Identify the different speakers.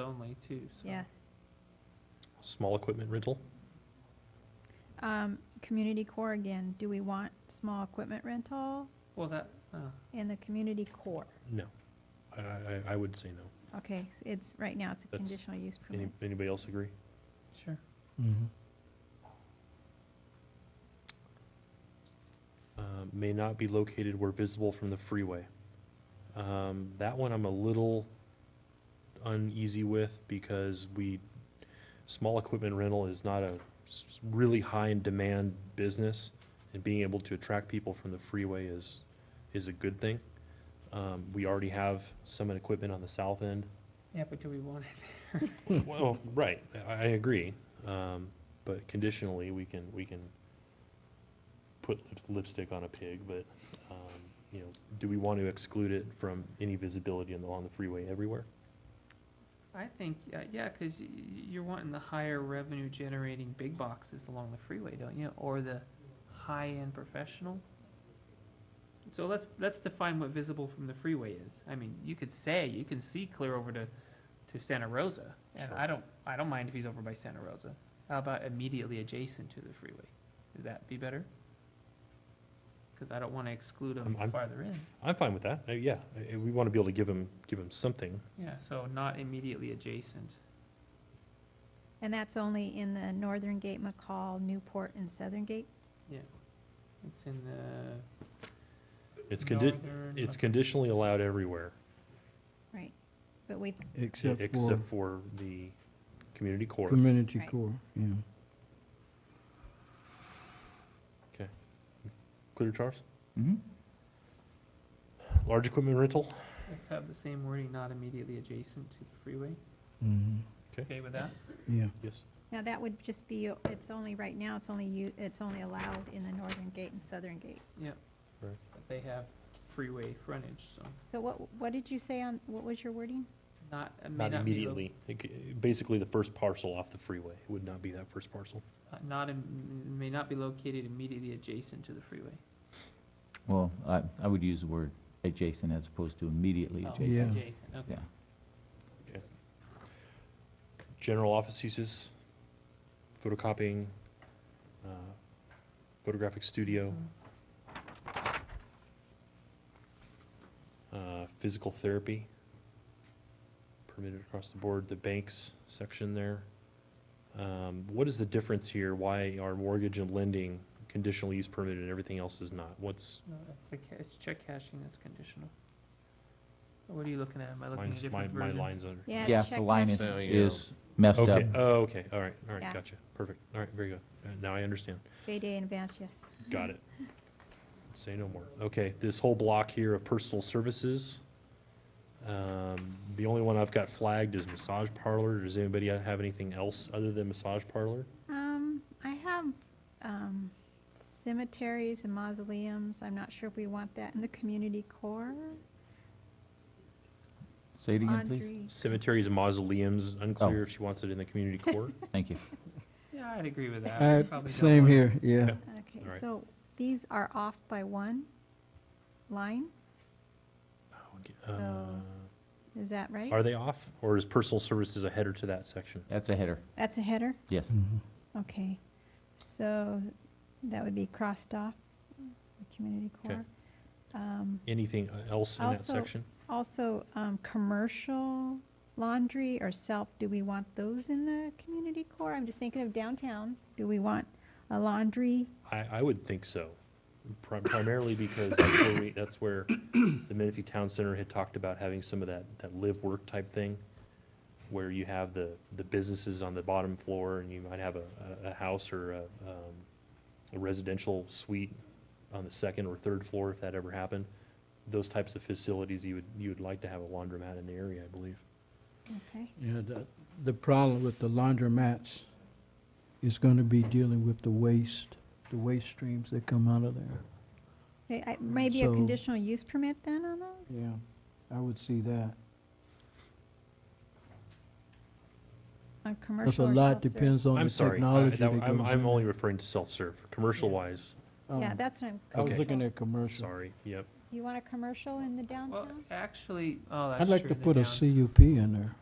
Speaker 1: only too, so.
Speaker 2: yeah.
Speaker 3: Small equipment rental?
Speaker 2: Um, community core again, do we want small equipment rental
Speaker 1: Well, that, uh,
Speaker 2: in the community core?
Speaker 3: No. I, I, I would say no.
Speaker 2: Okay, s- it's, right now it's a
Speaker 3: That's-
Speaker 2: conditional use
Speaker 3: Any,
Speaker 2: permit.
Speaker 3: anybody else agree?
Speaker 1: sure.
Speaker 4: Mm-hmm.
Speaker 3: Um, may not be located where visible from the freeway. Um, that one I'm a little uneasy with because we, small equipment rental is not a s- s- really high in demand business. And being able to attract people from the freeway is, is a good thing. Um, we already have some equipment on the south end
Speaker 1: Yeah, but do we want it?
Speaker 3: Well, right, I, I agree, um, but conditionally, we can, we can put lips- lipstick on a pig, but, um, you know, do we want to exclude it from any visibility on the, on the freeway everywhere?
Speaker 1: I think, uh, yeah, because you're wanting the higher revenue generating big boxes along the freeway, don't you? Or the high-end professional? So let's, let's define what visible from the freeway is. I mean, you could say, you can see clear over to, to Santa Rosa. And
Speaker 3: Sure.
Speaker 1: I don't, I don't mind if he's over by Santa Rosa. How about immediately adjacent to the freeway? Would that be better? Because I don't want to exclude him
Speaker 3: I'm- I'm-
Speaker 1: farther in.
Speaker 3: I'm fine with that, Uh, yeah, uh, we want to be able to give them, give them something,
Speaker 1: Yeah, so not immediately adjacent.
Speaker 2: And that's only in the Northern Gate, McCall, Newport, and Southern Gate?
Speaker 1: It's in the.
Speaker 3: it's condi,
Speaker 1: northern-
Speaker 3: it's conditionally allowed everywhere,
Speaker 2: Right, but we,
Speaker 4: Except for
Speaker 3: except for the community core.
Speaker 4: community
Speaker 2: Right.
Speaker 4: core, yeah.
Speaker 3: Clear, Charles?
Speaker 4: Mm-hmm.
Speaker 3: Large equipment rental,
Speaker 1: Let's have the same wording, not immediately adjacent to the freeway.
Speaker 4: Mm-hmm,
Speaker 1: Okay with that?
Speaker 4: yeah.
Speaker 3: yes,
Speaker 2: now that would just be, it's only, right now, it's only you, it's only allowed in the Northern Gate and Southern Gate.
Speaker 1: But they have freeway frontage, so
Speaker 2: So what, what did you say on, what was your wording?
Speaker 1: not, it may
Speaker 3: not
Speaker 1: not be. lo-
Speaker 3: immediately, It c- basically the first parcel off the freeway, it would not be that first parcel.
Speaker 1: uh, Not, im- may not be located immediately adjacent to the freeway.
Speaker 5: Well, I, I would use the word adjacent as opposed to immediately
Speaker 1: Oh,
Speaker 5: adjacent.
Speaker 4: Yeah.
Speaker 1: Adjacent, okay.
Speaker 5: Yeah.
Speaker 3: general office uses, photocopying, uh, photographic studio, uh, physical therapy, permitted across the board, the banks section there. Um, What is the difference here? Why are mortgage and lending conditional use permitted and everything else is not? What's,
Speaker 1: No, that's the, ca- it's check cashing, that's conditional. What are you looking at? Am I looking at a
Speaker 3: mine's- my,
Speaker 1: different
Speaker 3: my
Speaker 1: version?
Speaker 3: lines under?
Speaker 2: Yeah,
Speaker 5: Yeah,
Speaker 2: check
Speaker 5: the line is,
Speaker 2: that.
Speaker 6: There you
Speaker 5: is messed up.
Speaker 3: Okay, oh, okay, all right, all right,
Speaker 2: Yeah.
Speaker 3: gotcha, perfect, all right, very good. Uh, Now I understand.
Speaker 2: Bay Day in advance, yes.
Speaker 3: Got it. Say no more. Okay, this whole block here of personal services. Um, The only one I've got flagged is massage parlor. Does anybody have anything else other than massage parlor?
Speaker 2: Um, I have, um, cemeteries and mausoleums, I'm not sure if we want that in the community core.
Speaker 5: Say it again, please.
Speaker 2: Audrey,
Speaker 3: Cemeteries and mausoleums, unclear if she wants it in the community core.
Speaker 5: Thank you.
Speaker 1: Yeah, I'd agree with that.
Speaker 4: Uh,
Speaker 1: Probably don't
Speaker 4: Same
Speaker 1: want-
Speaker 4: here, yeah.
Speaker 2: Okay,
Speaker 3: All right.
Speaker 2: so these are off by one line,
Speaker 3: Uh,
Speaker 2: is that right?
Speaker 3: Are they off, or is personal services a header to that section?
Speaker 5: That's a header,
Speaker 2: That's a header?
Speaker 5: yes.
Speaker 4: Mhm.
Speaker 2: Okay, so that would be crossed off, the community
Speaker 3: Okay.
Speaker 2: core. Um,
Speaker 3: Anything else in that
Speaker 2: Also-
Speaker 3: section?
Speaker 2: Also, um, commercial laundry or self, do we want those in the community core? I'm just thinking of downtown. Do we want a laundry?
Speaker 3: I, I would think so, Pri- primarily because that's where, we- that's where the Menifee Town Center had talked about having some of that, that live-work type thing, where you have the, the businesses on the bottom floor, and you might have a, a, a house or a, um, a residential suite on the second or third floor, if that ever happened. Those types of facilities, you would, you would like to have a laundromat in the area, I believe.
Speaker 2: Okay,
Speaker 4: Yeah, the, the problem with the laundromats is gonna be dealing with the waste, the waste streams that come out of there.
Speaker 2: Okay, I- maybe a
Speaker 4: So-
Speaker 2: conditional use permit then on those?
Speaker 4: Yeah, I would see that.
Speaker 2: On
Speaker 4: Because
Speaker 2: commercial
Speaker 4: a
Speaker 2: or
Speaker 4: lot
Speaker 2: self-serve?
Speaker 4: depends on
Speaker 3: I'm
Speaker 4: the
Speaker 3: sorry, I-
Speaker 4: technology that
Speaker 3: that-
Speaker 4: goes
Speaker 3: I'm, I'm
Speaker 4: in.
Speaker 3: only referring to self-serve, commercial-wise,
Speaker 4: Oh,
Speaker 2: Yeah, that's what I'm.
Speaker 4: I was
Speaker 3: Okay.
Speaker 4: looking at commercial.
Speaker 3: sorry, yep.
Speaker 2: You want a commercial in the
Speaker 1: Well,
Speaker 2: downtown?
Speaker 1: actually, oh, that's true.
Speaker 4: I'd like to
Speaker 1: the
Speaker 4: put a
Speaker 1: down-
Speaker 4: CUP in there.